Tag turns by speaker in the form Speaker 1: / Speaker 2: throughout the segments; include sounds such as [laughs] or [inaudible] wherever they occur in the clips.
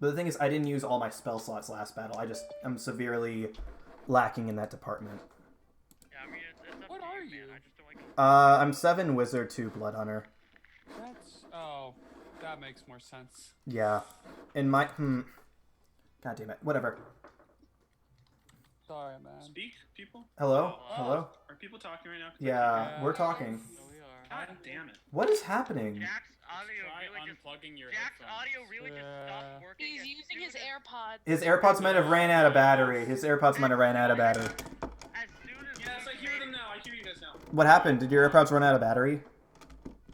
Speaker 1: But the thing is, I didn't use all my spell slots last battle. I just am severely lacking in that department.
Speaker 2: Yeah, I mean, it's, it's up
Speaker 3: What
Speaker 2: to
Speaker 3: are
Speaker 2: you, man.
Speaker 3: you?
Speaker 2: I just don't like to-
Speaker 1: Uh, I'm seven wizard, two blood hunter.
Speaker 3: That's oh, that makes more sense.
Speaker 1: Yeah, in my hmm. God damn it! Whatever.
Speaker 3: Sorry,
Speaker 2: Um,
Speaker 3: man.
Speaker 4: Speak, people?
Speaker 1: Hello, hello.
Speaker 4: Are people talking right now? 'Cause I
Speaker 1: Yeah,
Speaker 3: Yeah.
Speaker 1: we're talking.
Speaker 3: No, we are.
Speaker 4: can't- God damn it.
Speaker 1: What is happening?
Speaker 2: Jack's audio
Speaker 5: Try
Speaker 2: really just.
Speaker 5: unplugging your
Speaker 2: Jack's
Speaker 5: headphones.
Speaker 2: audio really just
Speaker 3: Yeah.
Speaker 2: stopped working.
Speaker 6: He's
Speaker 2: as
Speaker 6: using his
Speaker 2: soon as-
Speaker 6: AirPods.
Speaker 1: His AirPods might have ran out of battery. His AirPods might have ran out of battery.
Speaker 2: As soon as.
Speaker 4: Yes, I
Speaker 2: Luke
Speaker 4: hear
Speaker 2: made
Speaker 4: them
Speaker 2: it-
Speaker 4: now. I hear you guys now.
Speaker 1: What happened? Did your AirPods run out of battery?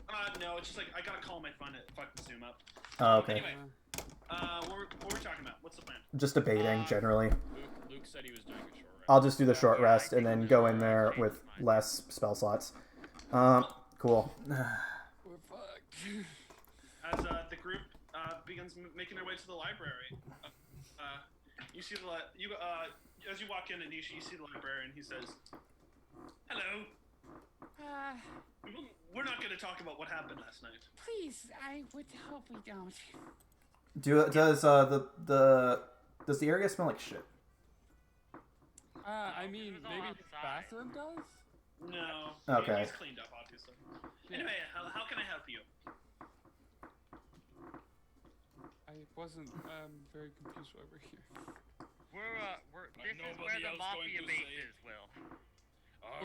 Speaker 4: Uh, no, it's just like I gotta call my phone to fucking zoom up.
Speaker 1: Oh, okay.
Speaker 4: Anyway, uh, what were, what were we talking about? What's the plan?
Speaker 1: Just debating generally.
Speaker 5: Uh, Luke, Luke said he was doing a short rest.
Speaker 1: I'll just do the short rest and then go in there with less spell slots. Um, cool. [sighs]
Speaker 3: We're fucked.
Speaker 4: As uh, the group uh, begins m- making their way to the library, uh, uh, you see the li- you uh, as you walk in, Anisha, you see the librarian. He says, "Hello.
Speaker 7: Uh,
Speaker 4: We will- We're not gonna talk about what happened last night.
Speaker 7: please, I would hope we don't.
Speaker 1: Do does uh the the does the area smell like shit? [laughs]
Speaker 3: Uh, I mean,
Speaker 2: was all
Speaker 3: maybe the
Speaker 2: outside.
Speaker 3: bathroom does.
Speaker 4: No.
Speaker 1: Okay.
Speaker 4: He's cleaned up, obviously. Anyway, how, how can I help you?
Speaker 3: I wasn't um very confused why we're here.
Speaker 2: We're, uh, we're,
Speaker 5: Like
Speaker 2: this is where
Speaker 5: nobody
Speaker 2: the
Speaker 5: else going
Speaker 2: mafia
Speaker 5: to
Speaker 2: base
Speaker 5: say it.
Speaker 2: is, Will.
Speaker 5: All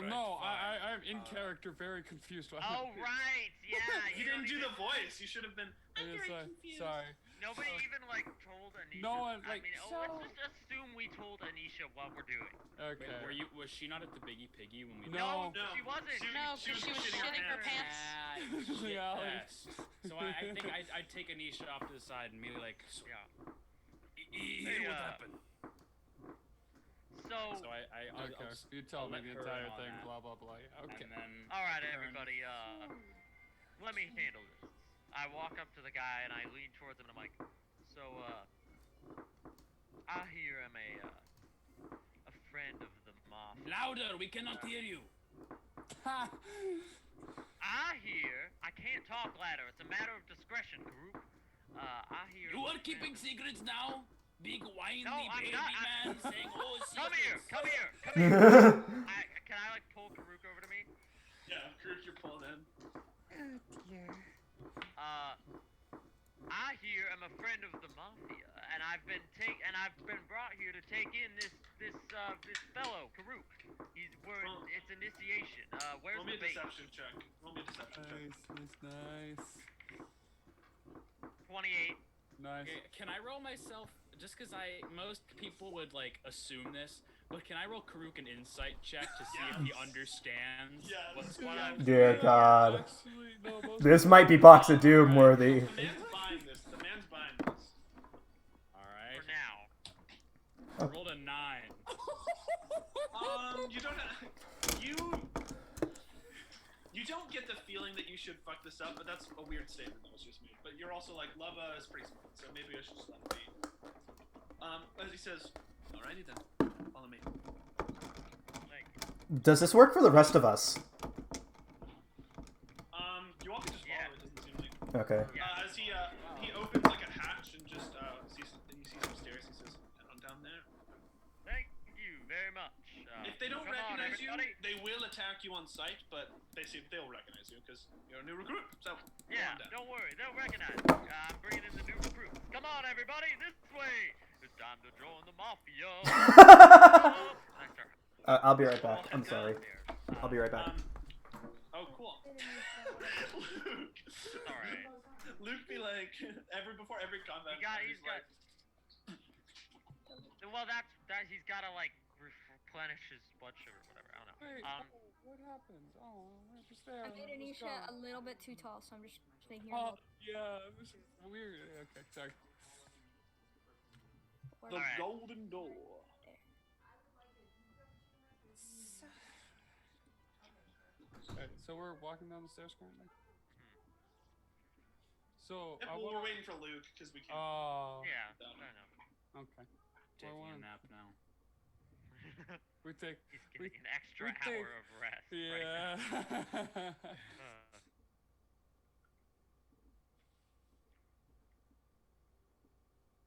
Speaker 3: Well,
Speaker 5: right,
Speaker 3: no,
Speaker 5: fine.
Speaker 3: I, I I'm in
Speaker 5: Uh,
Speaker 3: character, very confused [laughs] why.
Speaker 2: Oh,
Speaker 3: we're here.
Speaker 2: right, yeah.
Speaker 4: You
Speaker 2: don't
Speaker 4: didn't do
Speaker 2: even-
Speaker 4: the voice. You should have been. I'm
Speaker 3: It is,
Speaker 4: very
Speaker 3: uh,
Speaker 4: confused.
Speaker 3: sorry.
Speaker 2: Nobody
Speaker 3: Sorry.
Speaker 2: even, like, told Anisha.
Speaker 3: No one,
Speaker 2: I
Speaker 3: like,
Speaker 2: mean, oh, let's
Speaker 7: so-
Speaker 2: just assume we told Anisha what we're doing.
Speaker 3: Okay.
Speaker 5: Wait, were
Speaker 3: [laughs]
Speaker 5: you? Was she not at the Biggie Piggy when we?
Speaker 3: No.
Speaker 4: No.
Speaker 2: she wasn't.
Speaker 6: No, 'cause she was shitting her pants.
Speaker 5: Ah, shit ass. So I,
Speaker 3: [laughs]
Speaker 5: I think I'd, I'd take Anisha off to the side and maybe like, so,
Speaker 2: Yeah.
Speaker 5: e- e-
Speaker 2: Hey,
Speaker 5: what
Speaker 2: uh,
Speaker 5: happened?
Speaker 2: So,
Speaker 5: So I, I I'll,
Speaker 3: Okay.
Speaker 5: I'll,
Speaker 3: You tell
Speaker 5: I'll
Speaker 3: me
Speaker 5: let
Speaker 3: the
Speaker 5: her in
Speaker 3: entire
Speaker 5: on
Speaker 3: thing.
Speaker 5: that.
Speaker 3: Blah blah blah. Okay.
Speaker 5: and then
Speaker 2: alright,
Speaker 5: turn.
Speaker 2: everybody, uh, let me handle this. I walk up to the guy and I lean towards him and I'm like, so, uh, I hear I'm a, uh, a friend of the mafia.
Speaker 5: Louder! We cannot hear you.
Speaker 3: Ha!
Speaker 2: I hear, I can't talk louder, it's a matter of discretion, group. Uh, I hear.
Speaker 5: You
Speaker 2: I'm
Speaker 5: are
Speaker 2: a friend
Speaker 5: keeping
Speaker 2: of-
Speaker 5: secrets now, big whiny
Speaker 2: No, I'm
Speaker 5: baby
Speaker 2: not. I- [laughs]
Speaker 5: man saying oh secrets.
Speaker 2: Come here, come here, come here.
Speaker 1: Wait,
Speaker 2: I, can I, like, pull Karuk over to me?
Speaker 4: Yeah, Kirk, you're pulled in.
Speaker 7: Oh dear.
Speaker 2: Uh, I here am a friend of the mafia, and I've been take and I've been brought here to take in this this uh this fellow Karuk. He's we're
Speaker 4: Well-
Speaker 2: it's initiation. Uh, where's
Speaker 4: Roll me a
Speaker 2: the bait?
Speaker 4: deception check. Roll me a deception
Speaker 3: nice,
Speaker 4: check.
Speaker 3: [laughs] nice, nice,
Speaker 2: Twenty-eight.
Speaker 3: nice.
Speaker 5: Okay, can I roll myself? Just because I most people would like assume this, but can I roll Karuk an insight check to see if he understands
Speaker 4: Yes.
Speaker 5: what's going on?
Speaker 1: Dear God.
Speaker 3: Actually,
Speaker 1: [laughs]
Speaker 3: no, most
Speaker 1: This might be Box of Doom worthy.
Speaker 4: The man's buying this. The man's buying this.
Speaker 5: All
Speaker 2: For
Speaker 5: right,
Speaker 2: now.
Speaker 5: I rolled a nine.
Speaker 4: Um, you don't. Have, you. You don't get the feeling that you should fuck this up, but that's a weird statement that was just made. But you're also like, Lava is pretty smart, so maybe I should just let it be. Um, as he says, alrighty then, follow me.
Speaker 2: Like,
Speaker 1: Does this work for the rest of us?
Speaker 4: Um, you all can just follow.
Speaker 2: Yeah.
Speaker 4: It doesn't seem like.
Speaker 1: Okay. [laughs]
Speaker 2: yeah.
Speaker 4: Uh, as he uh, he opens like a hatch and just uh sees and you see some stairs. He says, down down there.
Speaker 2: Thank you very much. Uh,
Speaker 4: If they don't
Speaker 2: come on,
Speaker 4: recognize you,
Speaker 2: everybody.
Speaker 4: they will attack you on sight, but they see they'll recognize you because you're a new recruit. So go
Speaker 2: Yeah,
Speaker 4: on down.
Speaker 2: don't worry, they'll recognize me. Uh, I'm bringing in the new recruits. Come on, everybody, this way. It's time to join the mafia.
Speaker 1: [laughs] uh,
Speaker 2: And I start
Speaker 1: I'll be right back. I'm
Speaker 2: walking down
Speaker 1: sorry.
Speaker 2: there.
Speaker 1: I'll be right back.
Speaker 4: Um, oh, cool. [laughs] Luke,
Speaker 2: Alright.
Speaker 4: Luke be like every before every combat.
Speaker 2: He got-
Speaker 4: he's
Speaker 2: he's got-
Speaker 4: like,
Speaker 2: Well, that's that he's got to like replenish his blood sugar, or whatever. I don't know.
Speaker 3: Wait,
Speaker 2: Um,
Speaker 3: what happened? Oh, we're just there.
Speaker 8: I
Speaker 3: and
Speaker 8: made
Speaker 3: it was
Speaker 8: Anisha
Speaker 3: gone.
Speaker 8: a little bit too tall, so I'm just making
Speaker 3: Oh,
Speaker 8: her. look
Speaker 3: yeah, this is weird. Okay, sorry.
Speaker 8: more-
Speaker 4: the
Speaker 2: Alright.
Speaker 4: golden door.
Speaker 7: So,
Speaker 3: Alright, so we're walking down the stairs currently. So
Speaker 4: Yeah,
Speaker 3: I
Speaker 4: well, we're
Speaker 3: want.
Speaker 4: waiting for Luke because we can't.
Speaker 3: Oh,
Speaker 2: yeah, I
Speaker 4: Um,
Speaker 2: don't know.
Speaker 3: okay.
Speaker 5: Taking
Speaker 3: one.
Speaker 5: a nap now.
Speaker 3: We take.
Speaker 2: he's [laughs]
Speaker 3: We-
Speaker 2: getting an extra
Speaker 3: we
Speaker 2: hour
Speaker 3: think-
Speaker 2: of rest.
Speaker 3: Yeah. [laughs]
Speaker 2: Right now. Uh,